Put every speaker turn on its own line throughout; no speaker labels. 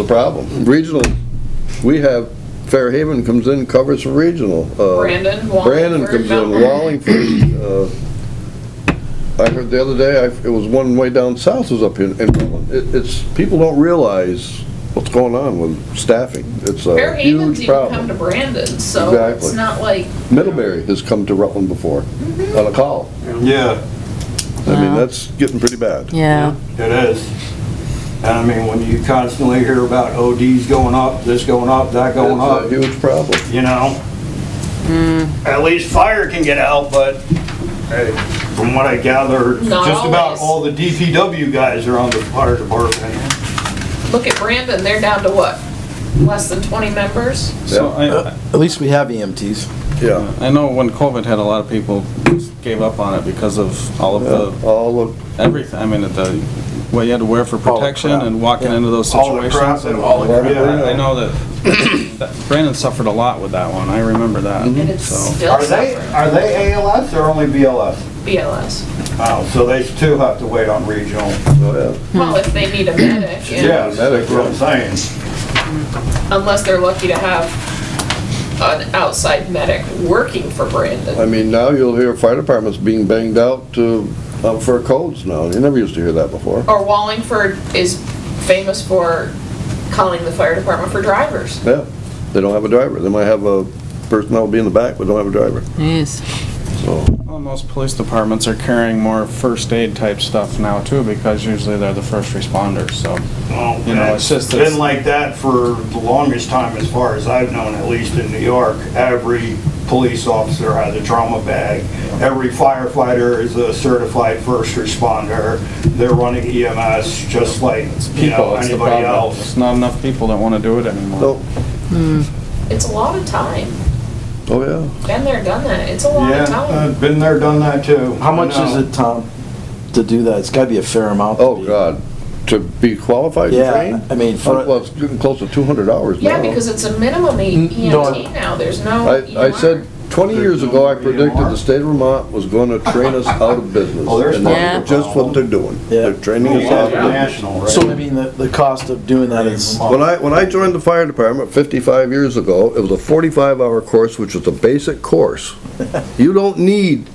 the problem. Regional, we have, Fairhaven comes in, covers for regional. uh,
Brandon, Wallingford,
Brandon comes in,
Mountain.
Wallingford. uh, I heard the other day, I- it was one way down south was up in, in Rutland. It- It's, people don't realize what's going on with staffing. It's a
Fairhaven's
huge
even come to
problem.
Brandon, so
Exactly.
it's not like,
Middlebury has come to Rutland before
Mm-hmm.
on a call.
Yeah,
I mean,
Wow.
that's getting pretty bad.
Yeah,
it is. And I mean, when you constantly hear about ODs going up, this going up, that going
It's a
up,
huge problem.
you know?
Hmm.
At least fire can get out, but hey, from what I gather,
Not
just about
always.
all the DPW guys are on the fire department.
look at Brandon, they're down to what? Less than 20 members?
Mm-hmm.
So I,
At least we have E EMTs.
Yeah.
I know when COVID hit, a lot of people just gave up on it because of all of the,
All of,
everything, I mean, the, what you had to wear for
All the
protection
crap.
and walking into those
All the crap
situations.
and
and-
all the crap.
Yeah.
I know that- that Brandon suffered a lot with that one, I remember
And
that,
it's
so.
still
Are they,
suffering.
are they ALS or only BLS?
BLS.
Oh, so they still have to wait on regional.
oh, yeah.
Well, if they need a medic, yeah.
Hmm. Yeah, that's what I'm saying.
unless they're lucky to have an outside medic working for
I
Brandon.
mean, now you'll hear fire departments being banged out to, um, for codes now. You never used to hear that before.
Or Wallingford is famous for calling the fire department for drivers.
Yeah, they don't have a driver. They might have a person that will be in the back, but don't have a driver,
jeez.
so.
Well, most police departments are carrying more first aid type stuff now too, because usually they're the first responders, so.
Well,
You know, it's just-
Oh, Been like that for the longest time, as far as I've known, at least in New York. Every police officer has a trauma bag. Every firefighter is a certified first responder. They're running EMS just like, you know,
People, it's the
anybody
problem.
else.
It's not enough people that wanna do it anymore.
No,
It's a lot of time.
oh, yeah.
Been there, done that. It's a lot
Yeah,
of time.
uh, been there, done that too.
How much
I know.
is it, Tom, to do that? It's gotta be a fair amount. to
Oh,
be-
God. To be qualified and
Yeah,
trained? Oh,
I mean,
Well,
for,
it's getting close to 200 hours now.
Yeah, because it's a minimum E-
N- no,
EMT now. There's no E
I, I
EMR.
said, 20 years ago, I predicted the state of Vermont was going to train us out of business.
Oh, there's
And that's
Yeah.
Just what they're doing.
Yeah.
They're training us out of business.
National, right?
so I mean, the, the cost of doing that is,
When I, when I joined the fire department 55 years ago, it was a 45-hour course, which was a basic course. You don't need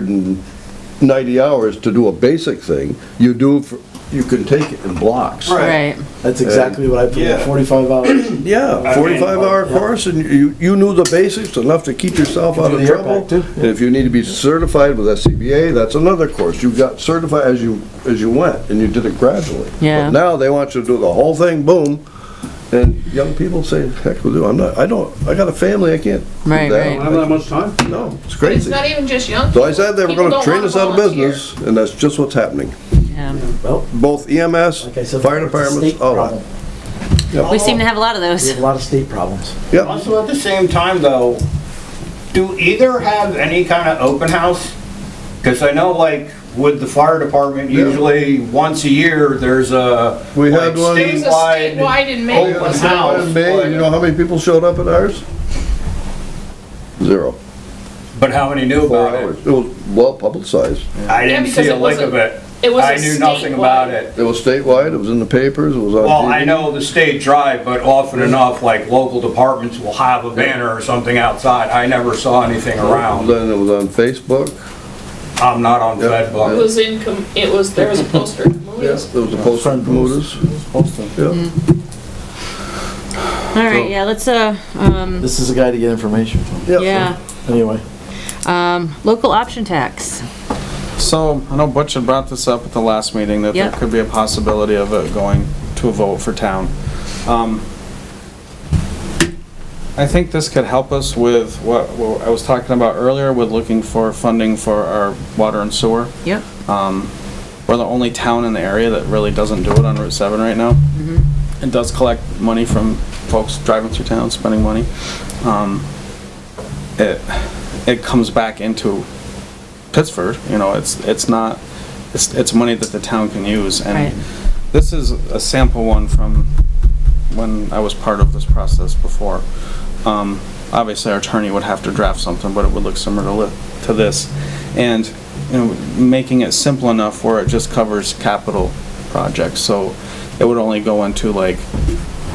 190 hours to do a basic thing. You do, for- you can take it in blocks.
Right.
that's exactly what I put in,
Yeah.
forty-five hours.
Yeah,
I mean- oh,
45-hour course, and you, you knew the basics enough to keep yourself out
Do
of
the air
trouble.
pack, too.
And if you need to be certified with SCBA, that's another course. You got certified as you, as you went, and you did it gradually.
Yeah.
But now they want you to do the whole thing, boom, and young people say, heck with you, I'm not, I don't, I got a family, I can't do
Right,
that."
right.
I don't have that much time.
No, it's
But It's
crazy.
not even just young
So I
people.
said they were
People
gonna
don't
train
wanna
us out of
volunteer.
business, and that's just what's happening.
Yeah.
Well,
Both EMS,
like I said.
fire
it's a
departments,
state
all
problem.
that.
We seem to have a lot of
We
those.
have a lot of state problems.
Yeah,
Also, at the same time, though, do either have any kind of open house? Because I know, like, with the fire department,
Yeah.
usually once a year, there's a
We
like,
had one-
There's a
statewide.
statewide in Maine.
open
wasn't there?
house.
in May, you know how many people showed up at ours? Zero.
But how many knew
Four
about it?
hours. It was well publicized.
I didn't
because
see
it
a lick
wasn't-
of it.
It was
I
a
knew nothing about
statewide.
it.
It was statewide, it was in the papers, it was on
Well, I
TV.
know the state drive, but often enough, like, local departments will have a banner or something outside. I never saw anything around.
Then it was on Facebook.
I'm not on
Yeah.
It
FedBook.
was in, com- it was, there was a poster.
There was a post on promoters. Yeah.
All right, yeah, let's, uh, um,
This is a guy to get information from.
yeah,
Anyway,
um, local option tax.
So, I know Butch had brought this up at the last meeting, that there
Yep.
could be a possibility of it going to a vote for town. Um, I think this could help us with what what I was talking about earlier, with looking for funding for our water and sewer.
Yep.
Um, We're the only town in the area that really doesn't do it on Route 7 right now. It does collect money from folks driving through town, spending money. Um, It, it comes back into Pittsford, you know, it's, it's not, it's, it's money that the town can use.
Right.
And this is a sample one from when I was part of this process before. Um, Obviously, our attorney would have to draft something, but it would look similar to li- to this. And, you know, making it simple enough where it just covers capital projects. So it would only go into like